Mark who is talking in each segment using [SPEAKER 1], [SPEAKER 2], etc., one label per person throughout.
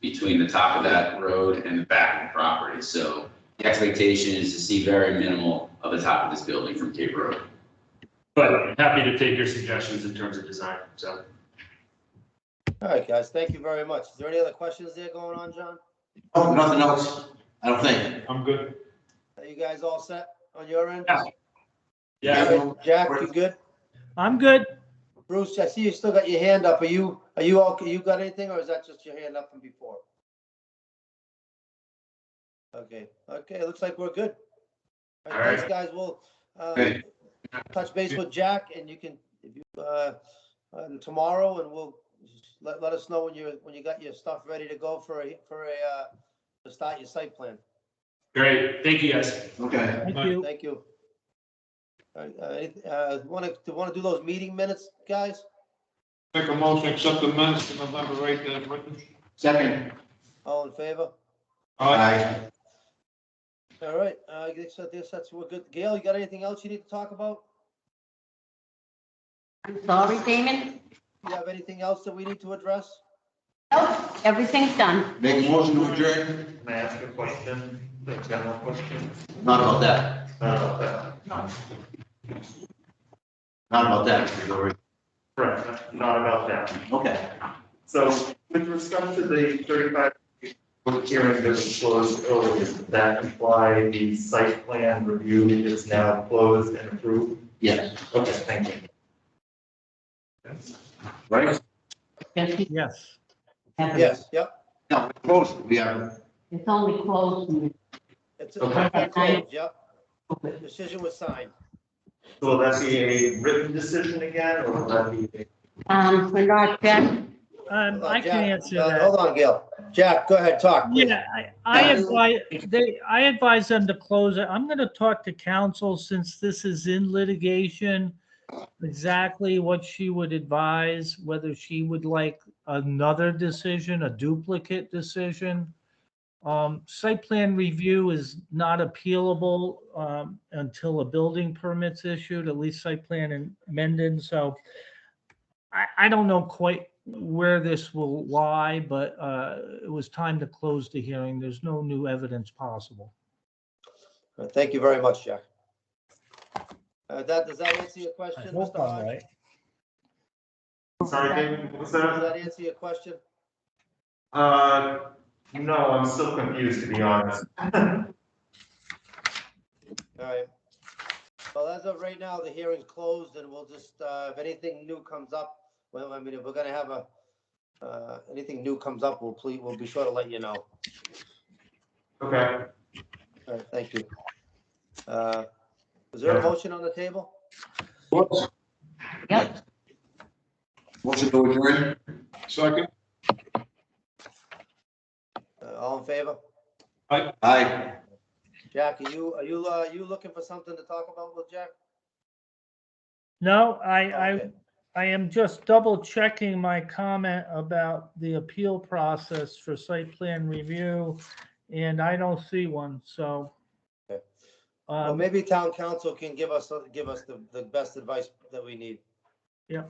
[SPEAKER 1] between the top of that road and the back of the property. So the expectation is to see very minimal of the top of this building from Cape Road.
[SPEAKER 2] But happy to take your suggestions in terms of design, so.
[SPEAKER 3] All right, guys, thank you very much. Is there any other questions there going on, John?
[SPEAKER 4] Oh, nothing else, I don't think.
[SPEAKER 2] I'm good.
[SPEAKER 3] Are you guys all set on your end?
[SPEAKER 2] Yeah. Yeah,
[SPEAKER 3] All right, Jack, you good?
[SPEAKER 5] I'm good.
[SPEAKER 3] Bruce, I see you still got your hand up. Are you, are you all, you got anything or is that just your hand up from before? Okay, okay, it looks like we're good. All
[SPEAKER 2] All
[SPEAKER 3] right,
[SPEAKER 2] right.
[SPEAKER 3] thanks, guys. We'll, uh,
[SPEAKER 1] Okay.
[SPEAKER 3] touch base with Jack and you can, if you, uh, um, tomorrow and we'll, let, let us know when you, when you got your stuff ready to go for a, for a, uh, to start your site plan.
[SPEAKER 2] great. Thank you, guys.
[SPEAKER 4] Okay.
[SPEAKER 5] Thank
[SPEAKER 2] Bye.
[SPEAKER 5] you.
[SPEAKER 3] Thank you. All right, uh, uh, wanna, wanna do those meeting minutes, guys?
[SPEAKER 6] Make a motion, to accept the minutes to November eighth as written.
[SPEAKER 4] Second.
[SPEAKER 3] All in favor?
[SPEAKER 4] Aye.
[SPEAKER 3] All right, uh, I guess that, this, that's, we're good. Gail, you got anything else you need to talk about?
[SPEAKER 7] I'm sorry, Damon.
[SPEAKER 3] You have anything else that we need to address?
[SPEAKER 7] Nope, everything's done.
[SPEAKER 4] Make a motion to adjourn,
[SPEAKER 8] Can I ask a question, a general question?
[SPEAKER 4] not about that,
[SPEAKER 8] Not about that.
[SPEAKER 4] not about that, Don't worry.
[SPEAKER 8] Correct, not about that.
[SPEAKER 4] okay.
[SPEAKER 8] So with respect to the thirty-five public hearing that was closed earlier, does that imply the site plan review is now closed and approved?
[SPEAKER 4] Yes.
[SPEAKER 8] Okay, thank you.
[SPEAKER 4] Right?
[SPEAKER 7] Yes, we
[SPEAKER 5] Yes.
[SPEAKER 7] have it.
[SPEAKER 3] Yes, yep.
[SPEAKER 4] No, we're close, we are,
[SPEAKER 7] It's only closed when it's
[SPEAKER 3] It's,
[SPEAKER 8] Okay.
[SPEAKER 3] it's closed, yep.
[SPEAKER 7] open.
[SPEAKER 3] Decision was signed.
[SPEAKER 8] So Will that be a written decision again, or will that be a
[SPEAKER 7] Um, we're not done.
[SPEAKER 3] Hold
[SPEAKER 5] Um,
[SPEAKER 3] on,
[SPEAKER 5] I can
[SPEAKER 3] Jack.
[SPEAKER 5] answer
[SPEAKER 3] Uh, Hold
[SPEAKER 5] that.
[SPEAKER 3] on, Gail. Jack, go ahead, talk, please.
[SPEAKER 5] Yeah, I, I advise, they, I advise them to close it. I'm gonna talk to counsel since this is in litigation. Exactly what she would advise, whether she would like another decision, a duplicate decision. Um, site plan review is not appealable, um, until a building permit's issued, at least site plan and amended, so. I, I don't know quite where this will lie, but, uh, it was time to close the hearing. There's no new evidence possible.
[SPEAKER 3] Uh, Thank you very much, Jack. Uh, that, does that answer your question,
[SPEAKER 5] I
[SPEAKER 3] Mr.
[SPEAKER 5] hope
[SPEAKER 3] Hodge? Does
[SPEAKER 5] I'm right.
[SPEAKER 8] Sorry, David, what's that?
[SPEAKER 3] that answer your question?
[SPEAKER 8] Uh, no, I'm still confused, to be honest.
[SPEAKER 3] All right. Well, as of right now, the hearing's closed and we'll just, uh, if anything new comes up, well, I mean, if we're gonna have a, uh, anything new comes up, we'll please, we'll be sure to let you know.
[SPEAKER 8] Okay.
[SPEAKER 3] All right, thank you. Uh, Is there a motion on the table?
[SPEAKER 4] motion to adjourn.
[SPEAKER 6] Second.
[SPEAKER 3] Uh, All in favor?
[SPEAKER 4] Aye.
[SPEAKER 3] Jack, are you, are you, uh, you looking for something to talk about with Jack?
[SPEAKER 5] No, I, I,
[SPEAKER 3] Okay.
[SPEAKER 5] I am just double checking my comment about the appeal process for site plan review, and I don't see one, so.
[SPEAKER 3] Okay. Well,
[SPEAKER 5] Um,
[SPEAKER 3] maybe town council can give us, uh, give us the, the best advice that we need.
[SPEAKER 5] Yeah.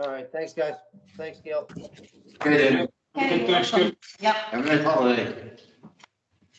[SPEAKER 3] All right, thanks, guys. Thanks, Gail.
[SPEAKER 4] Good,
[SPEAKER 7] Okay,
[SPEAKER 6] Good, thanks,
[SPEAKER 7] welcome. Yep.
[SPEAKER 4] have a nice holiday.